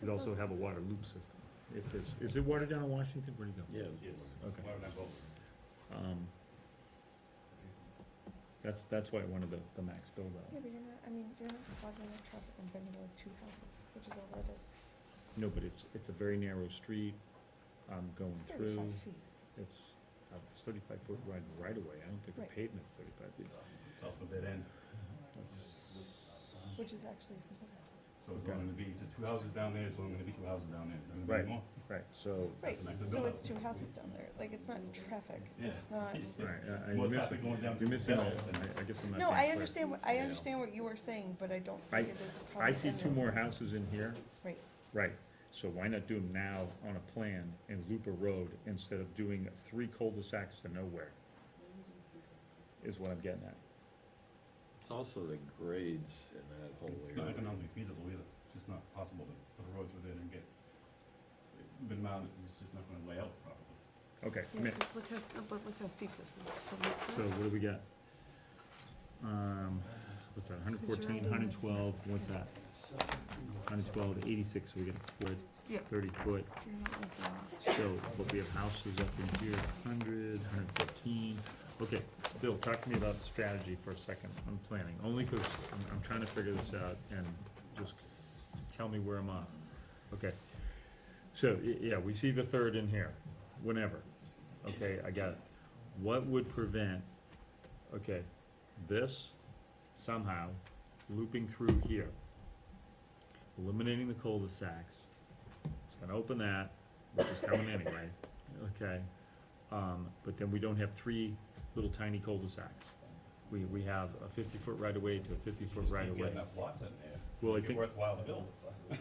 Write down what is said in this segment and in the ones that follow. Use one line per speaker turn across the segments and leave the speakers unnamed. could also have a water loop system. If there's, is there water down in Washington? Where'd it go?
Yeah.
Yes.
Okay.
Why would I vote?
Um, that's, that's why I wanted the, the max build out.
Yeah, but you're not, I mean, you're not clogging up traffic and bringing in two houses, which is all that is.
Oh, No, but it's, it's a very narrow street, I'm going
It's
through,
thirty-five feet.
it's a thirty-five foot wide right away. I don't think
Right.
the pavement's thirty-five feet.
It's also dead end,
That's-
Which is actually, completely-
so it's only gonna be, the two houses down there, it's only gonna be two houses down there. There's
Right.
gonna be more.
Right, so,
right,
an active
so
build-up.
it's two houses down there, like, it's not traffic,
Yeah.
it's not,
right, I,
More
I'm
traffic
missing,
going down.
you're missing all,
Bell than-
I, I guess I'm not.
no,
being
I
clear.
understand, what I
Yeah.
understand what you were saying, but I don't
I-
think it is a
Oh
problem.
I see
in
two
this
more
instance.
houses in here,
Right,
right, so why not do them now on a plan and loop a road instead of doing three cul-de-sacs to nowhere? Is what I'm getting at.
It's also the grades in that whole
It's not
area.
economically feasible either, it's just not possible to put a road through there and get, been mounted, it's just not gonna lay out properly.
Okay, I
Yeah,
mean,
just look how, but look how steep this is.
so what do we got? Um, what's that, hundred fourteen, hundred twelve, what's that? Hundred twelve, eighty-six, so we get a foot,
Yeah.
thirty foot,
You're not looking at-
so, but we have houses up in here, hundred, hundred fifteen. Okay, Bill, talk to me about strategy for a second on planning, only because I'm, I'm trying to figure this out and just tell me where I'm off. Okay, so, y- yeah, we see the third in here, whenever, okay, I got it. What would prevent, okay, this somehow looping through here? Eliminating the cul-de-sacs, it's gonna open that, which is coming anyway, okay? Um, but then we don't have three little tiny cul-de-sacs. We, we have a fifty-foot right-of-way to a fifty-foot
You
right-of-way.
Get enough lots in there,
Well, I
it'd be
think,
worthwhile to build.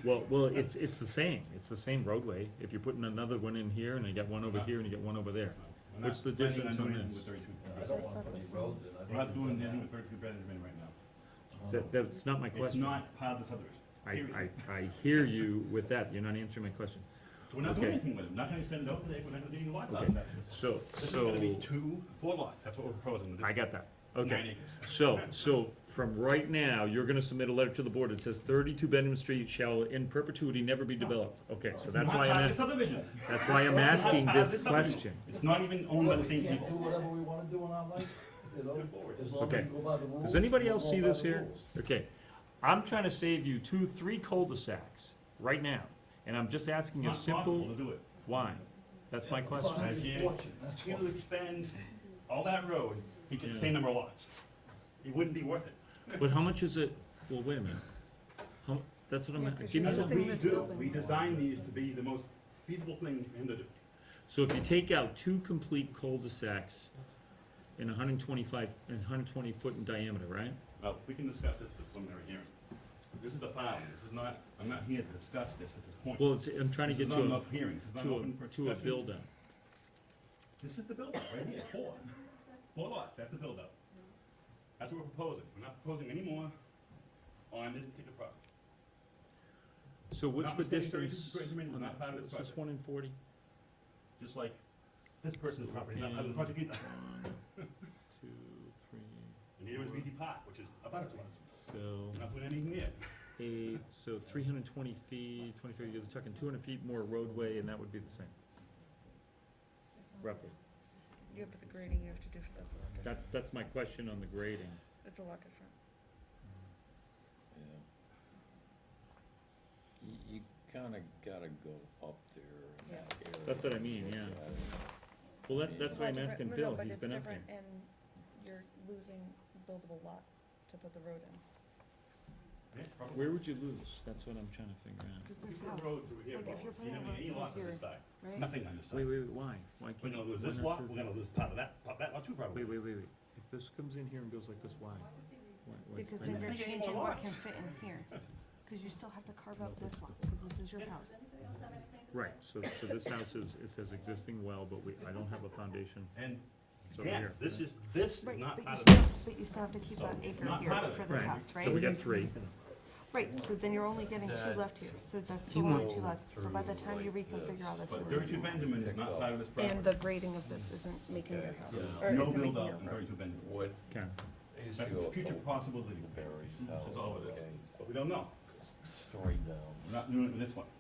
well, well, it's, it's the same, it's the same roadway. If you're putting another one in here, and you got one over here, and you got one over there.
We're not
What's the
planning
difference
doing
on
anything
this?
with 32
I
bedrooms.
don't
That's
wanna
not
put
the
any
same.
roads in. I think
We're not
we've
doing
done
anything with
that.
thirty-two bedrooms right now,
That, that's not my
it's
question.
not part of the subdivision,
I,
period.
I, I hear you with that, you're not answering my question.
So We're not doing
Okay.
anything with it, we're not gonna send it out there, we're not gonna do any lots out
Okay.
of that.
So,
This is
so,
gonna be two, four lots, that's what we're proposing with this.
I got that,
Nine
okay.
acres.
So, so from right now, you're gonna submit a letter to the board that says thirty-two Benham Street shall in perpetuity never be developed. Okay, so that's
Not
why
part
I'm,
of the
ask-
subdivision.
that's why I'm
It's not
asking
part of
this
the subdivision.
question.
It's not even owned by the same
We can't do
people.
whatever we wanna do in our life, you know, as long as
Okay.
we go by the rules.
Does anybody
we're
else
going
see
by
this
the
here?
rules.
Okay, I'm trying to save you two, three cul-de-sacs right now, and I'm just asking a
It's not possible to
simple
do it.
why. That's my
It's
question.
not
Right
even
here.
fortunate, that's why.
He'll expend all that road, he gets the same number of lots. It wouldn't be worth it.
But how much is it, well, wait a minute. How, that's what I'm,
Yeah,
at-
'cause
give me
you're
the
That's what
using
we
this
do.
building.
We design these to be the most feasible thing for him to do.
So if you take out two complete cul-de-sacs in hundred and twenty-five, and hundred and twenty foot in diameter, right?
Well, we can discuss this at the preliminary hearing. This is a filing, this is not, I'm not here to discuss this at this point.
Well, it's, I'm trying to
This is
get
not
to
an
a,
open hearing, this is not
to
open for
a, to a
discussion.
build-up.
This is the build-up, right here, four. Four lots, that's the build-up. That's what we're proposing. We're not proposing any more on this particular property.
So what's the
Notwithstanding thirty-two
distance?
square meters,
on
not
that?
part of
So It's
this
just one
project.
in forty?
Just like this person's property, not part of the
Fourteen.
project
One,
either.
two, three,
And here is BZ Park, which is about it to us.
so
We're not doing anything there.
eight, so three hundred and twenty feet, twenty-three, you're talking two hundred feet more roadway, and that would be the same. Roughly.
you have the grading you have to do for that, it's a lot different.
That's, that's my question on the grading.
it's a lot different.
Yeah. You, you kinda gotta go up there
Yeah.
in that area.
That's what I mean,
and look
yeah.
at it.
Well, that,
It's
that's
a
why
lot
I'm
different-
asking
no, no,
Bill,
but
he's
it's
been up there.
different And you're losing buildable lot to put the road in.
Yeah, probably.
Where would you lose? That's what I'm trying to figure out.
Cause this
Put a
house,
road through here,
like, if
Baldwin.
you're putting
You're
a
gonna need
road through
any lots on this
here,
side.
right?
Nothing on this side.
Wait, wait, wait, why? Why
We're
can't?
gonna lose
why
this
not
lot,
through
we're gonna lose part of that, part of that lot too probably.
Wait, wait, wait, wait. If this comes in here and goes like this, why? Why- why-
Because
I
then you're
know.
Make any more
changing what
lots.
can fit in here, cause you still have to carve out this lot, cause this is your house.
Right, so, so this house is, it says existing well, but we, I don't have a foundation.
And
It's over
again,
here,
this
right?
is, this is
Right, but
not
you
part of
still,
this.
but you still have to keep
So
that
it's
acre
not
here
part of
for
it.
this
Right.
house, right?
So we got three.
Right, so then you're only getting two
That-
left here, so that's
He
the only
wants-
two lots, so by the time you
Through like
reconfigure all this.
But
you're
thirty-two
gonna-
Benjamin is not part of this property.
And the grading of this isn't making your
Okay,
house,
yeah.
or
No
isn't making your
build-up in
road.
thirty-two Benjamin.
What
Okay,
is
That's
your
a future
thought?
possibility,
Barry's
It's
house,
all it is.
okay,
but we don't know.
story down.
We're not doing it with this one.